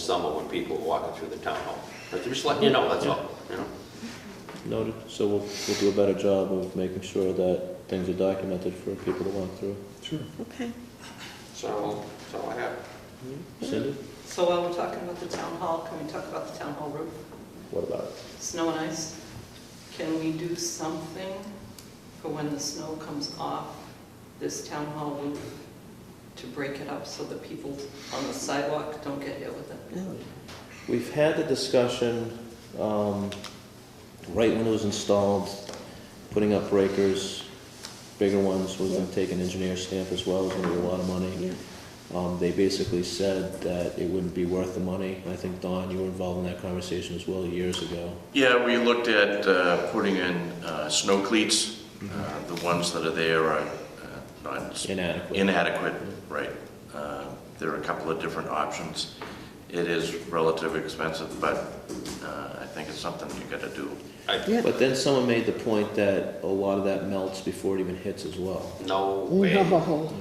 summer when people are walking through the town hall. But just letting you know, that's all, you know? Noted, so we'll, we'll do a better job of making sure that things are documented for people to walk through. Sure. Okay. So, that's all I have. Cindy, So while we're talking about the town hall, can we talk about the town hall roof, what about it? snow and ice? Can we do something for when the snow comes off this town hall roof to break it up so that people on the sidewalk don't get hit with it? We've had the discussion, um, right when it was installed, putting up breakers, bigger ones, was gonna take an engineer stamp as well, it was gonna be a lot of money. Yeah. Um, they basically said that it wouldn't be worth the money. I think, Don, you were involved in that conversation as well years ago. Yeah, we looked at uh, putting in uh, snow cleats. Uh, The ones that are there are uh, not Inadequate. inadequate, right. Uh, There are a couple of different options. It is relatively expensive, but uh, I think it's something you gotta do. I, Yeah. But then someone made the point that a lot of that melts before it even hits as well. no We way. have a hole.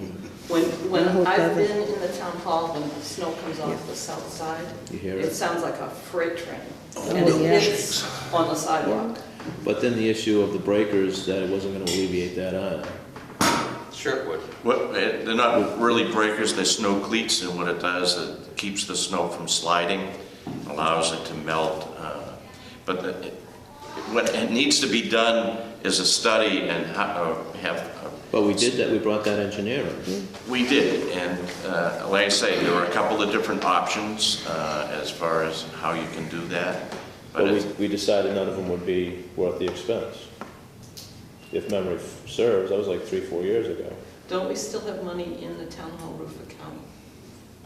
When, when The whole I've cover. been in the town hall, when the snow comes off the south side, You hear it it? sounds like a freight train. Oh, And it yeah. hits on the sidewalk. But then the issue of the breakers, that it wasn't gonna alleviate that either. Sure it would. What, eh, they're not really breakers, they're snow cleats, and what it does, it keeps the snow from sliding, allows it to melt. uh, But the- it- what it needs to be done is a study and ho- uh, have. uh, But we did that, we brought that engineer in. We did, and uh, like I say, there were a couple of different options uh, as far as how you can do that. But But we, it's, we decided none of them would be worth the expense. If memory f- serves, that was like three, four years ago. Don't we still have money in the town hall roof account?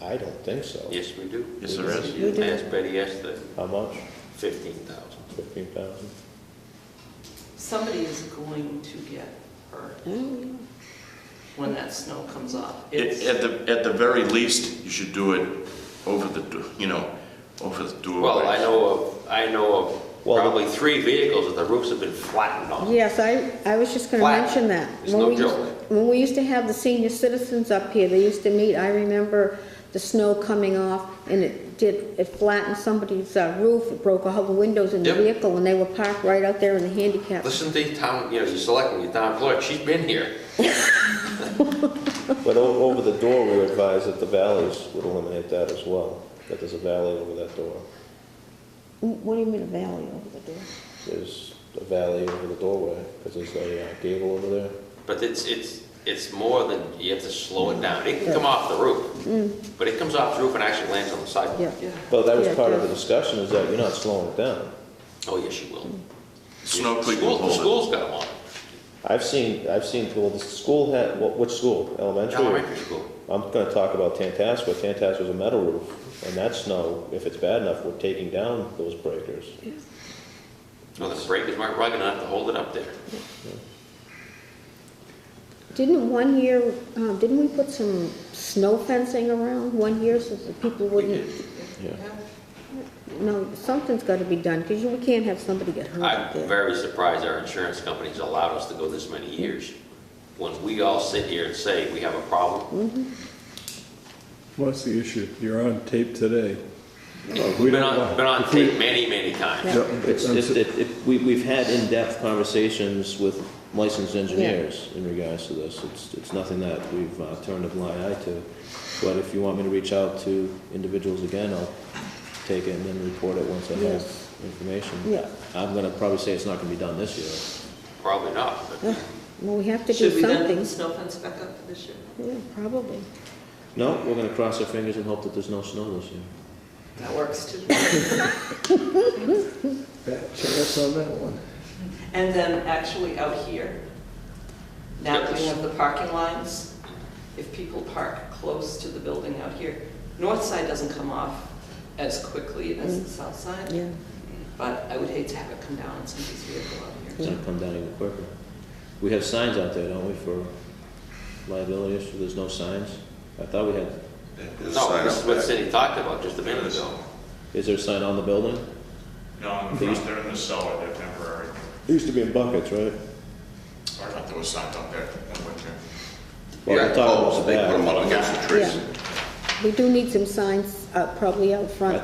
I don't think so. Yes, we do. Yes, there is. We do. I asked Betty yesterday, How much? fifteen thousand. Fifteen thousand? Somebody is going to get hurt when that snow comes off. it- It's- at the, at the very least, you should do it over the, do- you know, over the doorway. Well, I know of, I know of Well, the- probably three vehicles that the roofs have been flattened on. Yes, I, I was just gonna Flat. mention that. It's When no we used- joke. When we used to have the senior citizens up here, they used to meet, I remember the snow coming off and it did, it flattened somebody's uh, roof, it broke all the windows in the Yep. vehicle and they were parked right out there in the handicap. Listen to the town, you know, you're selecting your town clerk, she's been here. But o- over the door, we were advised that the valleys would eliminate that as well, that there's a valley over that door. What do you mean a valley over the door? There's a valley over the doorway, because there's a uh, gable over there. But it's, it's, it's more than, you have to slow it down. It can come off the Mm. roof, but it comes off the roof and actually lands on the Yeah. sidewalk. Yeah. But that Yeah, was part of the yeah. discussion, is that you're not slowing it down. Oh, yes, she will. Snow cleat School- will The hold school's got one, I've seen, I've seen, well, the school had, wh- which school, elementary? or- elementary school. I'm gonna talk about Tantascwa. Tantascwa's a metal roof, and that snow, if it's bad enough, we're taking down those breakers. Well, the breakers weren't rugged enough to hold it up there. Didn't one year, um, didn't we put some snow fencing around one year so that people wouldn't? Yeah. No, something's gotta be done, because we can't have somebody get hurt out I'm there. very surprised our insurance companies allowed us to go this many years. When we all sit here and say we have a problem, What's the issue? You're on tape today. we've been on, been on tape many, many times. It's, it's, it, it, we, we've had in-depth conversations with licensed engineers in regards to this. It's, it's nothing that we've uh, turned a blind eye to. But if you want me to reach out to individuals again, I'll take it and then report it once I have Yes. information. Yeah. I'm gonna probably say it's not gonna be done this year. Probably not, but Well, we have to do Should we then put something. the snow fence back up for this year? Yeah, probably. No, we're gonna cross our fingers and hope that there's no snow this year. That works too. Bad chance on that one. And then actually out here, now that we Yes. have the parking lines, if people park close to the building out here, north side doesn't come off as quickly as the south side, Yeah. but I would hate to have it come down on somebody's vehicle out It's here. gonna come down even quicker. We have signs out there, don't we, for liability issue, there's no signs? I thought we had, no, this is what Cindy talked about just a minute ago. is there a sign on the building? No, in the front, they're in the cellar, they're temporary. There used to be in buckets, I right? thought there was signs up there in the winter. Well, Yeah, we're talking about oh, the they put bag. them up against the trees. Yeah. We do need some signs, uh, probably out front.